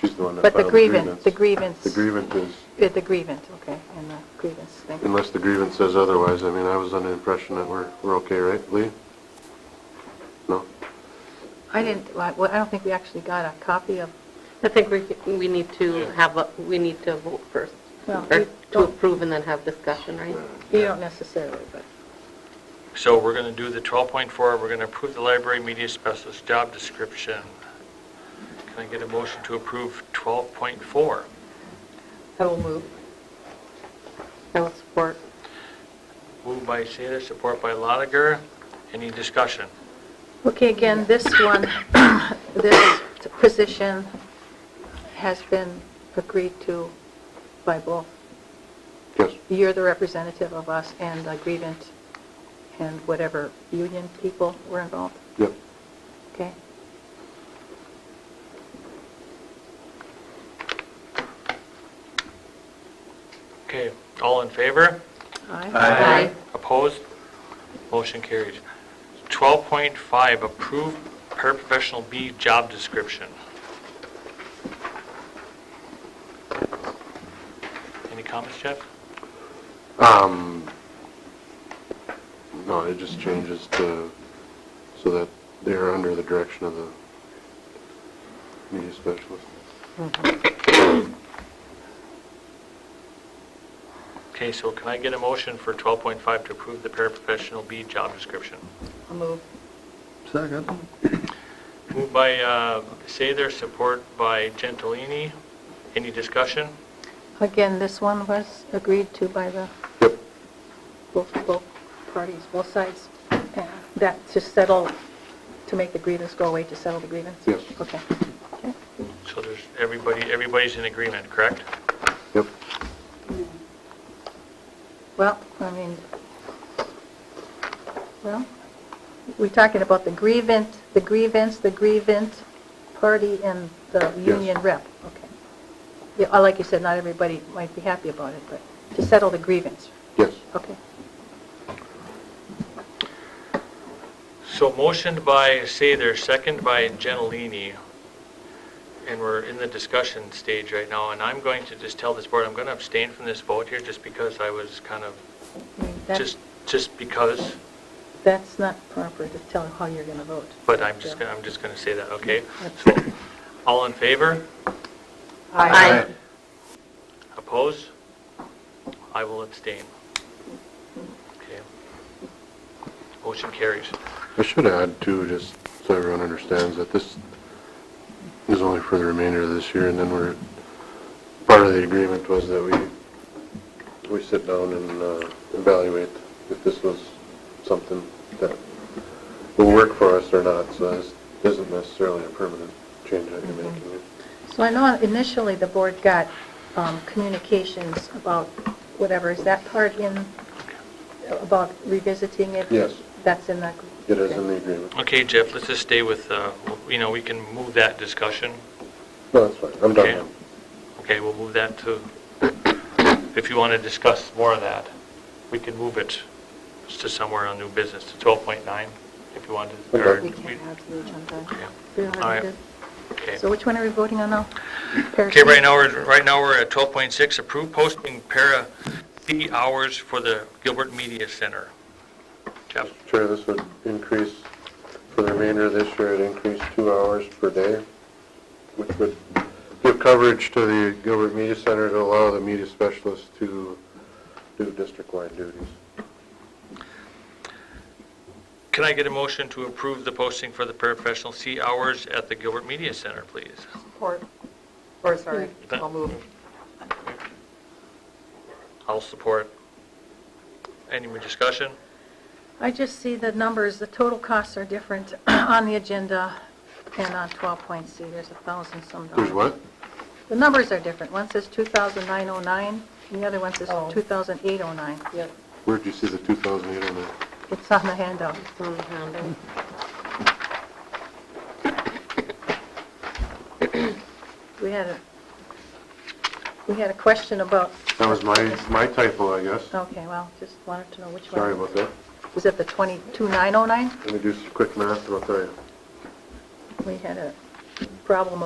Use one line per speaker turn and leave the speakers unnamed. she's the one that
But the
filed the grievance.
grievance, the grievance.
The grievance is,
Yeah, the grievance, okay, and the grievance thing.
unless the grievance says otherwise, I mean, I was under the impression that we're, we're okay, right, Lee? No?
I didn't, like, well, I don't think we actually got a copy of,
I think we, we need to have, a we need to vote first,
Well,
or
we
to
don't-
approve and then have discussion, right?
you don't necessarily, but,
So we're going to do the 12.4, we're going to approve the library media specialist job description. Can I get a motion to approve 12.4?
I will move. I will support.
Moved by Seda, support by Lotiger. Any discussion?
okay, again, this one, this position has been agreed to by both.
Yes.
You're the representative of us and the grievance and whatever union people were involved,
Yep.
okay?
Okay, all in favor?
Aye.
Opposed? Motion carries. 12.5, approve paraprofessional B job description. Any comments, Jeff?
Um, no, it just changes to, so that they're under the direction of the media specialist.
Okay, so can I get a motion for 12.5 to approve the paraprofessional B job description?
I'll move.
Second.
Moved by uh, Sather, support by Gentilini. Any discussion?
Again, this one was agreed to by the
Yep.
both, both parties, both sides, and that to settle, to make the grievance go away, to settle the grievance?
Yes.
Okay. Okay.
So there's, everybody, everybody's in agreement, correct?
Yep.
Well, I mean, well, we're talking about the grievance, the grievance, the grievance party and the union rep, okay. Yeah, uh, like you said, not everybody might be happy about it, but to settle the grievance,
Yes.
okay.
So motioned by Sather, second by Gentilini, and we're in the discussion stage right now, and I'm going to just tell this board, I'm going to abstain from this vote here just because I was kind of,
I mean, that's,
just, just because,
that's not proper to tell how you're going to vote.
but I'm just, gonna I'm just going to say that, okay? So, all in favor?
Aye.
Oppose? I will abstain. Okay. Motion carries.
I should add too, just so everyone understands that this is only for the remainder of this year and then we're, part of the agreement was that we, we sit down and uh, evaluate if this was something that will work for us or not. So this isn't necessarily a permanent change that you're making.
So I know initially the board got um, communications about whatever, is that part in, about revisiting it?
Yes.
That's in the...
It is in the agreement.
Okay, Jeff, let's just stay with, uh, you know, we can move that discussion.
No, that's fine. I'm
Okay.
done
Okay, we'll move that to, if you want to discuss more of that, we can move it to somewhere on new business, to 12.9, if you want to. or
Okay.
We can't have the agenda.
Yeah.
We don't
All right.
have it.
Okay.
So which one are we voting on now?
Okay, right now, we're, right now, we're at 12.6, approve posting para fee hours for the Gilbert Media Center. Jeff?
Mr. Chair, this would increase, for the remainder of this year, it increased two hours per day, which would give coverage to the Gilbert Media Center to allow the media specialists to do district-wide duties.
Can I get a motion to approve the posting for the paraprofessional C hours at the Gilbert Media Center, please?
Or, or sorry, I'll move.
I'll support. Any more discussion?
I just see the numbers, the total costs are different on the agenda and on 12.C, there's a thousand some dollars.
There's what?
The numbers are different. One says 2,909, and the other one says
Oh.
2,809.
Yep,
Where'd you see the 2008 on that?
It's on the handout.
it's on the handle.
We had a, we had a question about,
That was my, my typo, I guess.
okay, well, just wanted to know which one.
Sorry about that.
Was it the 22909?
Let me do some quick math, and I'll tell you.
We had a problem